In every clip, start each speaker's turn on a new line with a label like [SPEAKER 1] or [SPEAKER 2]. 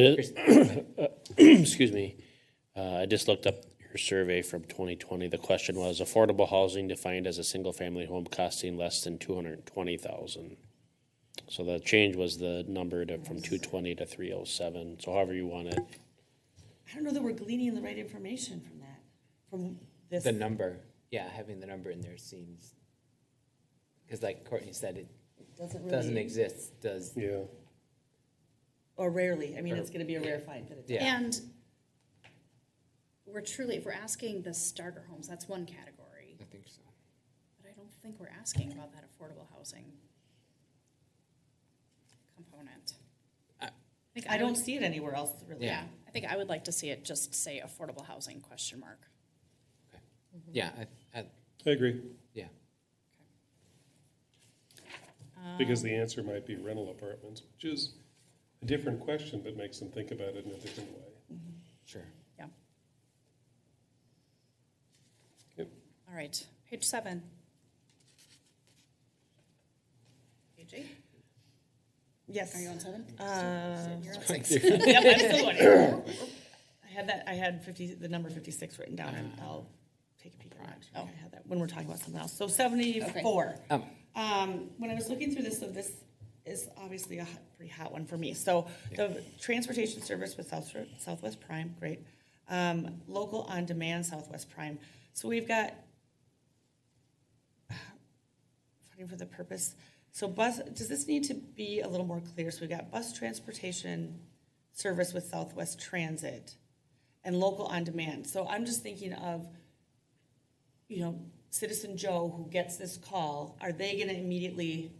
[SPEAKER 1] Excuse me. Uh, I just looked up your survey from 2020. The question was affordable housing defined as a single-family home costing less than 220,000. So the change was the number to, from 220 to 307. So however you want it.
[SPEAKER 2] I don't know that we're gleaning the right information from that, from this.
[SPEAKER 3] The number, yeah, having the number in there seems, because like Courtney said, it
[SPEAKER 2] Doesn't
[SPEAKER 3] doesn't
[SPEAKER 2] really,
[SPEAKER 3] exist, does,
[SPEAKER 1] Yeah.
[SPEAKER 2] or rarely. I mean, it's gonna be a rare find that it does.
[SPEAKER 3] yeah.
[SPEAKER 4] And we're truly, if we're asking the starter homes, that's one category,
[SPEAKER 3] I think so.
[SPEAKER 4] but I don't think we're asking about that affordable housing component. think
[SPEAKER 2] I don't
[SPEAKER 4] would-
[SPEAKER 2] see it anywhere else, really.
[SPEAKER 4] Yeah, I think I would like to see it just say affordable housing question mark.
[SPEAKER 3] Yeah, I, I,
[SPEAKER 5] I agree,
[SPEAKER 3] yeah,
[SPEAKER 5] because the answer might be rental apartments, which is a different question, but makes them think about it in a different way.
[SPEAKER 3] sure.
[SPEAKER 4] Yeah.
[SPEAKER 5] Yep.
[SPEAKER 4] All right, page seven. Page eight,
[SPEAKER 2] Yes.
[SPEAKER 4] are you on seven? Uh,
[SPEAKER 2] Um,
[SPEAKER 4] You're on
[SPEAKER 3] Like
[SPEAKER 4] six.
[SPEAKER 3] they're-
[SPEAKER 2] Yep, I'm still on it. I had that, I had fifty, the number fifty-six written down, and I'll take a peek at that. Oh, I had that, when we're talking about something else. So seventy-four.
[SPEAKER 3] Oh.
[SPEAKER 2] Um, when I was looking through this, so this is obviously a hot- pretty hot one for me. So the transportation service with South, Southwest Prime, great. Um, local on-demand Southwest Prime. So we've got funding for the purpose. So bus, does this need to be a little more clear? So we've got bus transportation service with Southwest Transit and local on-demand. So I'm just thinking of, you know, citizen Joe who gets this call, are they gonna immediately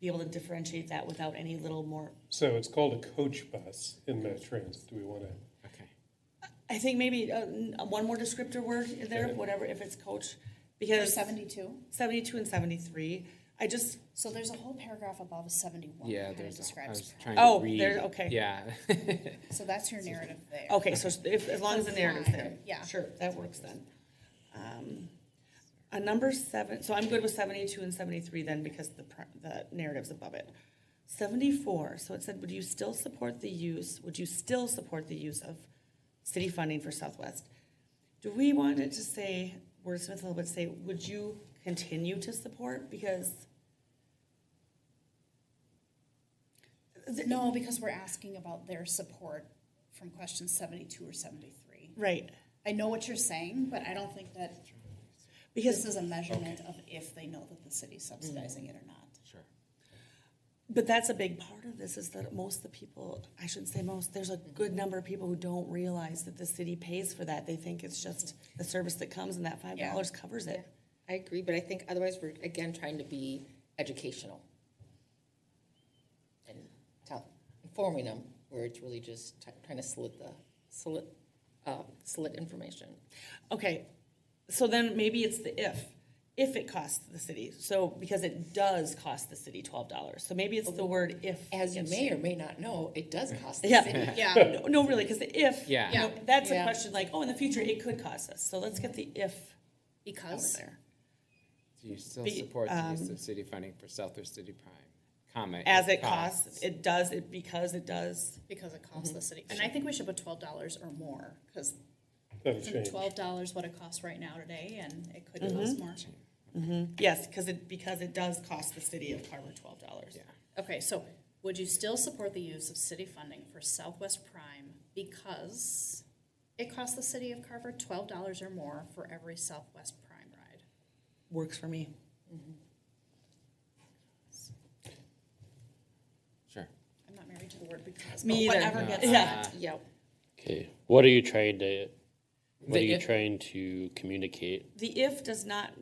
[SPEAKER 2] be able to differentiate that without any little more?
[SPEAKER 5] So it's called a coach bus in Mass Transit, do we want to?
[SPEAKER 3] Okay.
[SPEAKER 2] I think maybe, uh, n- one more descriptor word in there, whatever, if it's coach, because
[SPEAKER 4] Seventy-two,
[SPEAKER 2] seventy-two and seventy-three, I just,
[SPEAKER 4] so there's a whole paragraph above seventy-one
[SPEAKER 3] Yeah,
[SPEAKER 4] that kind
[SPEAKER 3] there's,
[SPEAKER 4] of
[SPEAKER 3] a- I was
[SPEAKER 4] describes.
[SPEAKER 3] trying
[SPEAKER 2] Oh,
[SPEAKER 3] to read.
[SPEAKER 2] there- okay.
[SPEAKER 3] Yeah.
[SPEAKER 4] So that's your narrative there.
[SPEAKER 2] Okay, so if, as long as the narrative's there.
[SPEAKER 4] Fine, yeah.
[SPEAKER 2] Sure, that works then. Um, A number seven, so I'm good with seventy-two and seventy-three then because the, pr- the narrative's above it. Seventy-four, so it said, would you still support the use, would you still support the use of city funding for Southwest? Do we want it to say, wordsmith a little bit, say, would you continue to support? Because
[SPEAKER 4] No, because we're asking about their support from question seventy-two or seventy-three.
[SPEAKER 2] Right,
[SPEAKER 4] I know what you're saying, but I don't think that this
[SPEAKER 2] because,
[SPEAKER 4] is a measurement of if they know that the city's subsidizing it or not.
[SPEAKER 3] Sure.
[SPEAKER 2] but that's a big part of this is that most of the people, I shouldn't say most, there's a good number of people who don't realize that the city pays for that. They think it's just the service that comes and that five dollars covers it.
[SPEAKER 6] I agree, but I think otherwise we're again trying to be educational. And tell, informing them where it's really just t- trying to slit the, slit, uh, slit information.
[SPEAKER 2] Okay, so then maybe it's the if, if it costs the city, so, because it does cost the city twelve dollars, so maybe it's the word if.
[SPEAKER 6] Oh. As you
[SPEAKER 2] gets-
[SPEAKER 6] may or may not know, it does cost the city.
[SPEAKER 2] Yeah.
[SPEAKER 4] Yeah.
[SPEAKER 2] No, no, really, because the if, you
[SPEAKER 3] Yeah.
[SPEAKER 2] know,
[SPEAKER 4] Yeah.
[SPEAKER 2] that's a
[SPEAKER 6] Yeah.
[SPEAKER 2] question like, oh, in the future, it could cost us, so let's get the if over
[SPEAKER 4] Because,
[SPEAKER 2] there.
[SPEAKER 3] Do you still
[SPEAKER 2] Be-
[SPEAKER 3] support the use of city funding for Southwest City Prime? Comment.
[SPEAKER 2] um, As it costs, it does, it, because it does.
[SPEAKER 4] because it costs the city, and I think we should put twelve dollars or more, because
[SPEAKER 5] That'll
[SPEAKER 4] isn't
[SPEAKER 5] change.
[SPEAKER 4] twelve dollars what it costs right now today, and it could cost more.
[SPEAKER 2] Yes, because it, because it does cost the city of Carver twelve dollars.
[SPEAKER 3] Yeah.
[SPEAKER 4] Okay, so would you still support the use of city funding for Southwest Prime because it costs the city of Carver twelve dollars or more for every Southwest Prime ride?
[SPEAKER 2] Works for me.
[SPEAKER 3] Sure.
[SPEAKER 4] I'm not married to the word because, but
[SPEAKER 2] Me either.
[SPEAKER 4] whatever gets
[SPEAKER 2] Yeah.
[SPEAKER 3] Uh,
[SPEAKER 4] that.
[SPEAKER 6] Yep.
[SPEAKER 1] Okay. What are you trying to, what are
[SPEAKER 3] The
[SPEAKER 1] you
[SPEAKER 3] if-
[SPEAKER 1] trying to communicate?
[SPEAKER 2] The if does not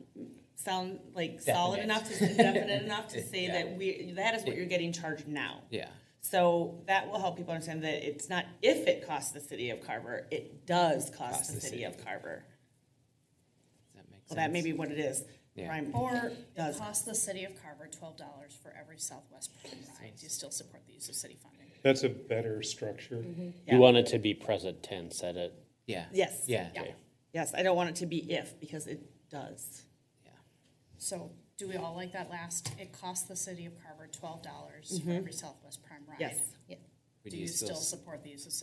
[SPEAKER 2] sound like solid
[SPEAKER 3] Definite.
[SPEAKER 2] enough, to definite enough to say
[SPEAKER 3] Yeah.
[SPEAKER 2] that we, that is what you're getting charged now.
[SPEAKER 3] Yeah.
[SPEAKER 2] So that will help people understand that it's not if it costs the city of Carver, it does cost the city of Carver.
[SPEAKER 3] Does that make sense?
[SPEAKER 2] Well, that may be what it is.
[SPEAKER 3] Yeah.
[SPEAKER 2] Prime
[SPEAKER 4] Or it
[SPEAKER 2] does.
[SPEAKER 4] costs the city of Carver twelve dollars for every Southwest Prime ride. Do you still support the use of city funding?
[SPEAKER 5] That's a better structure.
[SPEAKER 2] Yeah.
[SPEAKER 1] You want it to be present tense at it.
[SPEAKER 3] Yeah.
[SPEAKER 2] Yes.
[SPEAKER 3] Yeah.
[SPEAKER 4] Yeah.
[SPEAKER 2] Yes, I don't want it to be if, because it does.
[SPEAKER 3] Yeah.
[SPEAKER 4] So do we all like that last, it costs the city of Carver twelve dollars for every Southwest Prime ride?
[SPEAKER 2] Yes.
[SPEAKER 6] Yep.
[SPEAKER 3] Would
[SPEAKER 4] Do you still
[SPEAKER 3] s-
[SPEAKER 4] support the use of